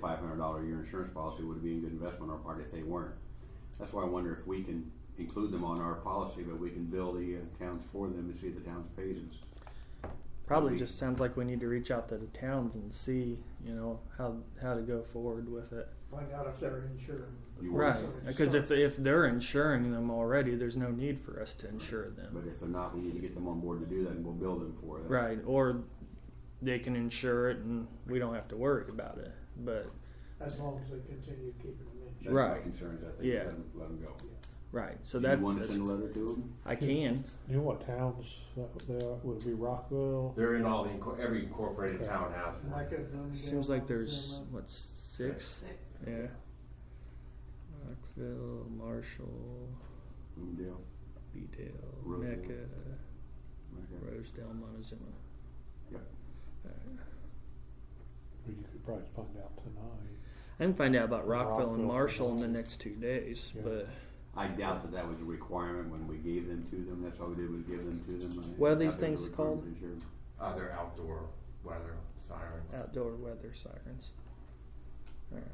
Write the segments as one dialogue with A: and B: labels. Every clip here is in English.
A: five hundred dollar a year insurance policy would be a good investment on our part if they weren't. That's why I wonder if we can include them on our policy, but we can bill the uh, towns for them and see if the towns pays us.
B: Probably
A: We-
B: just sounds like we need to reach out to the towns and see, you know, how how to go forward with it.
C: Find out if they're insured.
A: You
C: before
A: Right,
B: Right,
C: somebody
B: because if
C: starts.
B: if they're insuring them already, there's no need for us to insure them.
A: But uh, if they're not, we need to get them on board to do that, and we'll bill them for it.
B: Right, or they can insure it and we don't have to worry about it. But
C: As long as they continue keeping them
A: That's
C: insured.
A: my
B: Right.
A: concern is I think
B: Yeah.
A: let them, let them go.
B: right, so
A: Do
B: that
A: you want to
B: that's-
A: send a letter to them?
B: I can.
D: You know what towns that they are, would it be Rockville?
E: They're in all the inco- every incorporated town has
C: And
E: one.
C: like at Bloomingdale,
B: Seems like
C: it's
B: there's
C: in
B: what six?
F: Six.
B: Yeah. Rockville, Marshall,
A: Bloomingdale?
B: Beedale,
A: Rosedale.
B: Mecca,
A: Okay.
B: Rosedale, Montezuma.
A: Yep.
B: Alright.
D: Or you could probably find out tonight.
B: I can find out about Rockville,
D: Rockville
B: and Marshall in the
D: tonight.
B: next two days,
D: Yeah.
B: but
A: I doubt that that was a requirement when we gave them to them. That's all we did was give them to them. I-
B: What
A: I
B: are these
A: doubt there was a
B: things called?
A: requirement to insure.
E: Uh, they're outdoor weather sirens.
B: outdoor weather sirens. All right.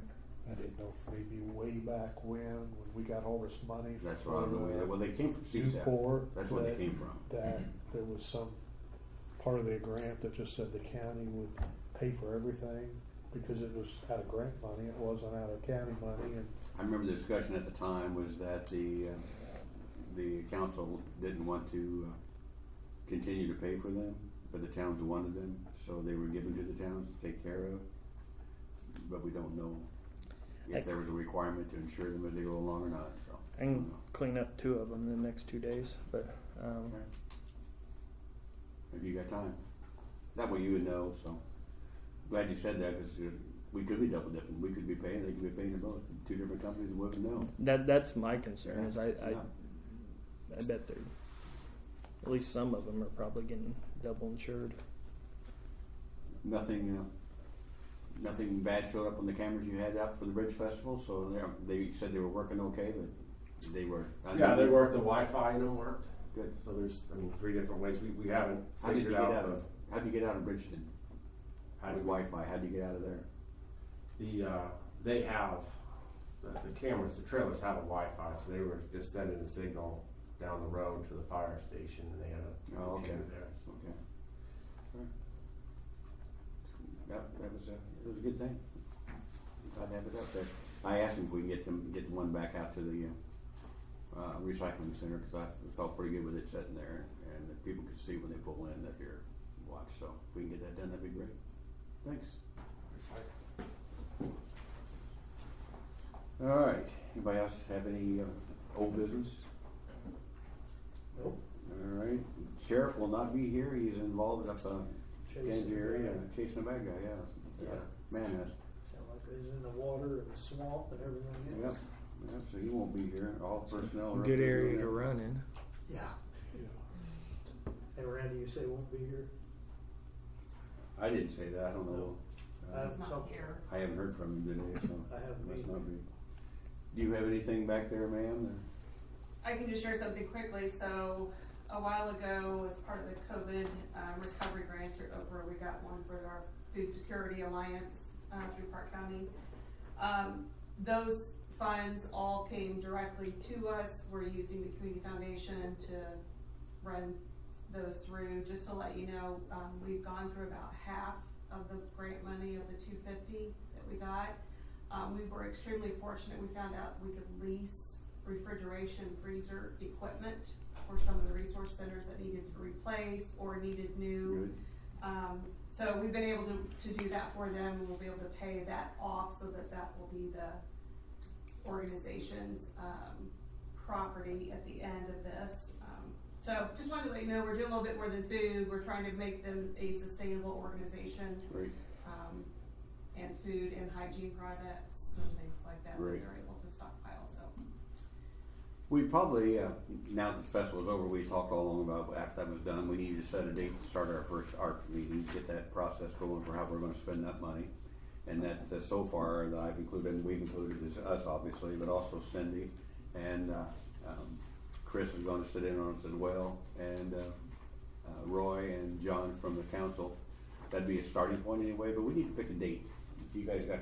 D: I didn't know if maybe way back when, when we got all this money
A: That's why I don't know. where they-
D: from uh,
A: Well, they came from CSAP.
D: Newport.
A: That's where they
D: that-
A: came from.
D: That there was some part of the grant that just said the county would pay for everything because it was out of grant money, it wasn't out of county money and
A: I remember the discussion at the time was that the, uh, the council didn't want to uh, continue to pay for them, but the towns wanted them, so they were given to the towns to take care of. But we don't know if there was a requirement to insure them as they go along or not, so.
B: I can clean up two of them in the next two days, but um,
A: If you got time. That way you would know, so. Glad you said that, because we could be double dipping. We could be paying, they could be paying to both. Two different companies wouldn't know.
B: that that's my concern. Is I I,
A: Yeah.
B: I bet they're at least some of them are probably getting double insured.
A: Nothing, uh, nothing bad showed up on the cameras you had out for the Bridge Festival, so they- they said they were working okay, but they were. I
E: Yeah, they
A: mean,
E: work. The Wi-Fi in them worked.
A: Good.
E: So there's, I mean, three different ways. We, we haven't
A: How did you get
E: figured out,
A: out
E: the-
A: of, how'd you get out of Bridgeton
E: how
A: with
E: do we,
A: Wi-Fi? How'd you get out of there?
E: the uh, they have the, the cameras. The trailers have a Wi-Fi, so they were just sending a signal down the road to the fire station, and they had a
A: Oh, okay.
E: computer there.
A: Okay. That, that was a, it was a good thing. I'd have it up there. I asked him if we can get them, get the one back out to the, uh, uh, recycling center, cause I felt pretty good with it sitting there and that people could see when they pull in that they're watched, so if we can get that done, that'd be great. Thanks. Alright, anybody else have any, uh, old business?
C: Nope.
A: Alright, sheriff will not be here, he's involved up, uh,
C: Chasing
A: Tangier area,
C: them.
A: chasing a bad guy, yeah.
C: Yeah.
A: Man, that's,
C: Sound like he's in the water and the swamp and everything
A: yep,
C: else.
A: yep, so he won't be here, all personnel are. up
B: Good
A: there doing
B: area to
A: that.
B: run in.
C: Yeah.
D: you know.
C: And Randy, you say won't be here?
A: I didn't say that, I don't know,
C: Uh,
F: It's not here.
A: I haven't heard from him today, so.
C: I haven't
A: must
C: either.
A: not be. Do you have anything back there, ma'am?
F: I can just share something quickly. So a while ago, as part of the COVID um, recovery grants through Oprah, we got one for our Food Security Alliance uh, through Park County. Um, those funds all came directly to us. We're using the Community Foundation to run those through. Just to let you know, um, we've gone through about half of the grant money of the two fifty that we got. Um, we were extremely fortunate. We found out we could lease refrigeration freezer equipment for some of the resource centers that needed to replace or needed new.
A: Good.
F: Um, so we've been able to, to do that for them, and we'll be able to pay that off so that that will be the organization's, um, property at the end of this. Um, So just wanted to let you know, we're doing a little bit more than food, we're trying to make them a sustainable organization,
A: Great,
F: um, and food and hygiene products and things like that, that
A: Right.
F: they're able to stockpile, so.
A: we probably, uh, now that the festival's over, we talked all along about after that was done, we needed to set a date to start our first art meeting, get that process going for how we're gonna spend that money. And that, uh, so far, that I've included, and we've included is us, obviously, but also Cindy and, uh, um, Chris is gonna sit in on us as well, and, uh, uh, Roy and John from the council. That'd be a starting point anyway, but we need to pick a date. If you guys got